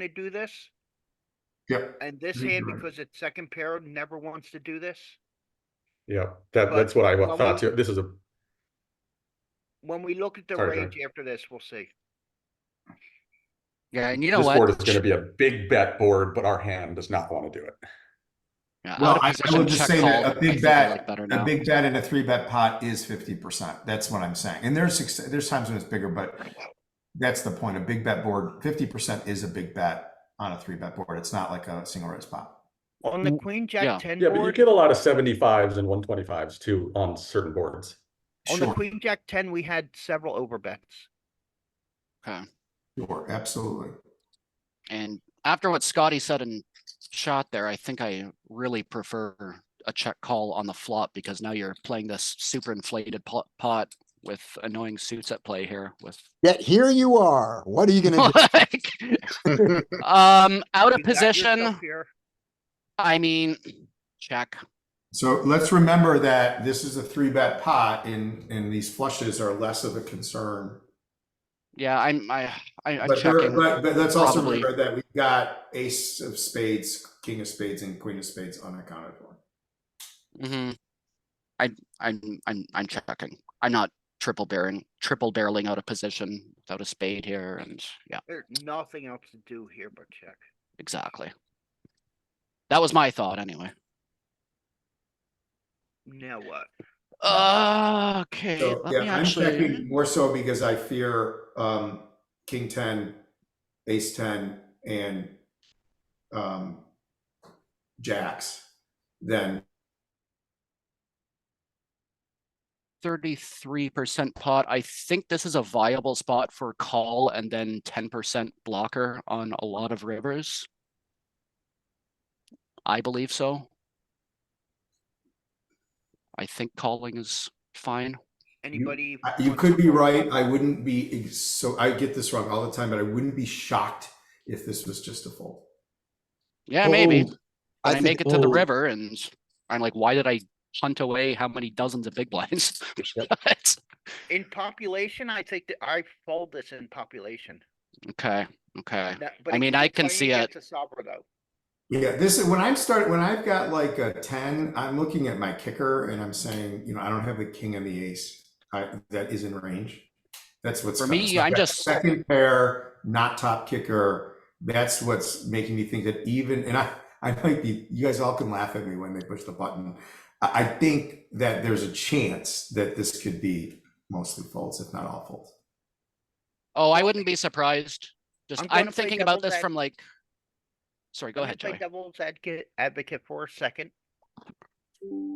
to do this? Yep, And this Mhm. hand, because its second pair never wants to do this? Yeah, that, But that's what I wa- when thought. we- too. This is a, When we look at the Sorry, John. range after this, we'll see. Yeah, and you know this board is what? gonna be a big bet board, but our hand does not wanna do it. Yeah, Well, out of I- I position, will just check say that call, a I big think I bet- like better a now. big bet and a three bet pot is fifty percent. That's what I'm saying. And there's ex- there's times when it's bigger, but that's the point. A big bet board, fifty percent is a big bet on a three bet board. It's not like a single raise pot. On the W- queen, yeah. jack ten Yeah, but you board, get a lot of seventy-fives and one twenty-fives too on certain boards. Oh, on the Sure, queen, jack ten, we had several overbets. Okay. sure, absolutely. And after what Scotty said and shot there, I think I really prefer a check call on the flop because now you're playing this super inflated pot, pot with annoying suits at play here with Yet here you are. What are you gonna do? like, um out of You got yourself position. here. I mean, check. So let's remember that this is a three bet pot and and these flushes are less of a concern. Yeah, I'm I, I I'm But there, checking. but but let's also probably. remember that we've got ace of spades, king of spades, and queen of spades unaccounted for. Mm-hmm. I I'm I'm I'm checking. I'm not triple bearing, triple barreling out of position without a spade here, and yeah, There's nothing else to do here but check. exactly. That was my thought anyway. Now what? Okay, So, let yeah, me I'm actually. checking more so because I fear um, king ten, ace ten, and um, jacks. Then Thirty-three percent pot. I think this is a viable spot for call and then ten percent blocker on a lot of rivers. I believe so. I think calling is fine. Anybody? I- uh, you want could to be call? right. I wouldn't be ex- so. I get this wrong all the time, but I wouldn't be shocked if this was just a fold. Yeah, maybe. Oh, Fold. And I think make it to the fold. river and I'm like, why did I hunt away how many dozens of big blinds? But- In population, I think that I fold this in population. Okay, okay. Now- but I if mean, you're I can playing see it. against a Sabra though. Yeah, this is when I start when I've got like a ten. I'm looking at my kicker and I'm saying, you know, I don't have the king and the ace I, that is in range. That's what's For me, it's like I'm that just- second pair, not top kicker. That's what's making me think that even and I, I might be. You guys all can laugh at me when they push the button. I, I think that there's a chance that this could be mostly folds, if not all folds. Oh, I wouldn't be surprised. Just, I'm going I'm to play thinking about devil's this ad- from like, sorry, go I'm gonna ahead, play Joey. Devil's advocate, advocate for a second.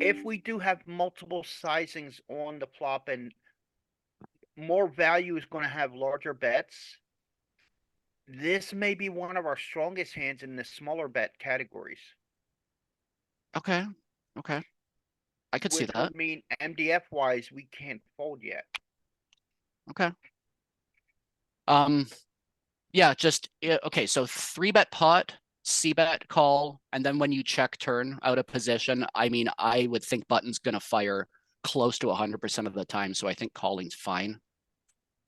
If we do have multiple sizings on the flop and more value is gonna have larger bets. This may be one of our strongest hands in the smaller bet categories. Okay, okay. I could see which would that. Mean MDF wise, we can't fold yet. Um, yeah, just, yeah, okay, so three bet pot, C bet call, and then when you check turn out of position, I mean, I would think button's gonna fire close to hundred percent of the time, so I think calling's fine.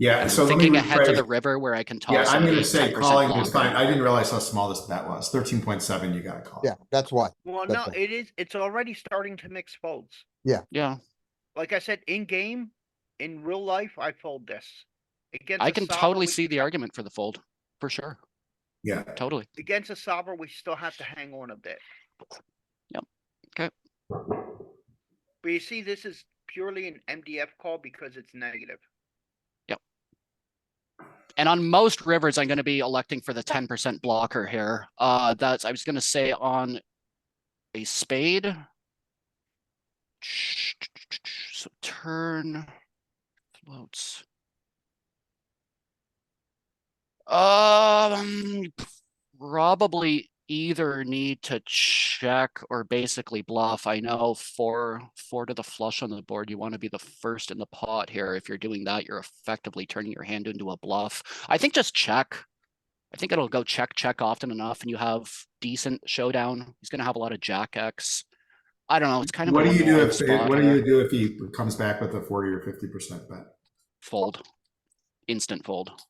Yeah. I'm So let me thinking ahead to rephrase. the river where I can toss. Yeah, I'm it going to at say 10% calling is longer. fine. I didn't realize how small this bet was. Thirteen point seven. You got to call. Yeah, that's why. Well, no, That's it is, it's already starting to mix folds. Yeah, Like I said, in game, in real life, I fold this. Against I a can Sabra, totally we- see the argument for the fold, for sure, Yeah. totally. Against a Sabra, we still have to hang on a bit. Yep. Okay. But you see, this is purely an MDF call because it's negative. And on most rivers, I'm gonna be electing for the ten percent blocker here. Uh, that's, I was gonna say on a spade. So turn floats. Um, probably either need to check or basically bluff. I know four, four to the flush on the board. You want to be the first in the pot here. If you're doing that, you're effectively turning your hand into a bluff. I think just check. I think it'll go check, check often enough and you have decent showdown. He's gonna have a lot of jack X. I don't know, it's kind of. a What do you do one-man if spot what do here. you do if he comes back with a forty or fifty percent bet? Fold. Instant fold.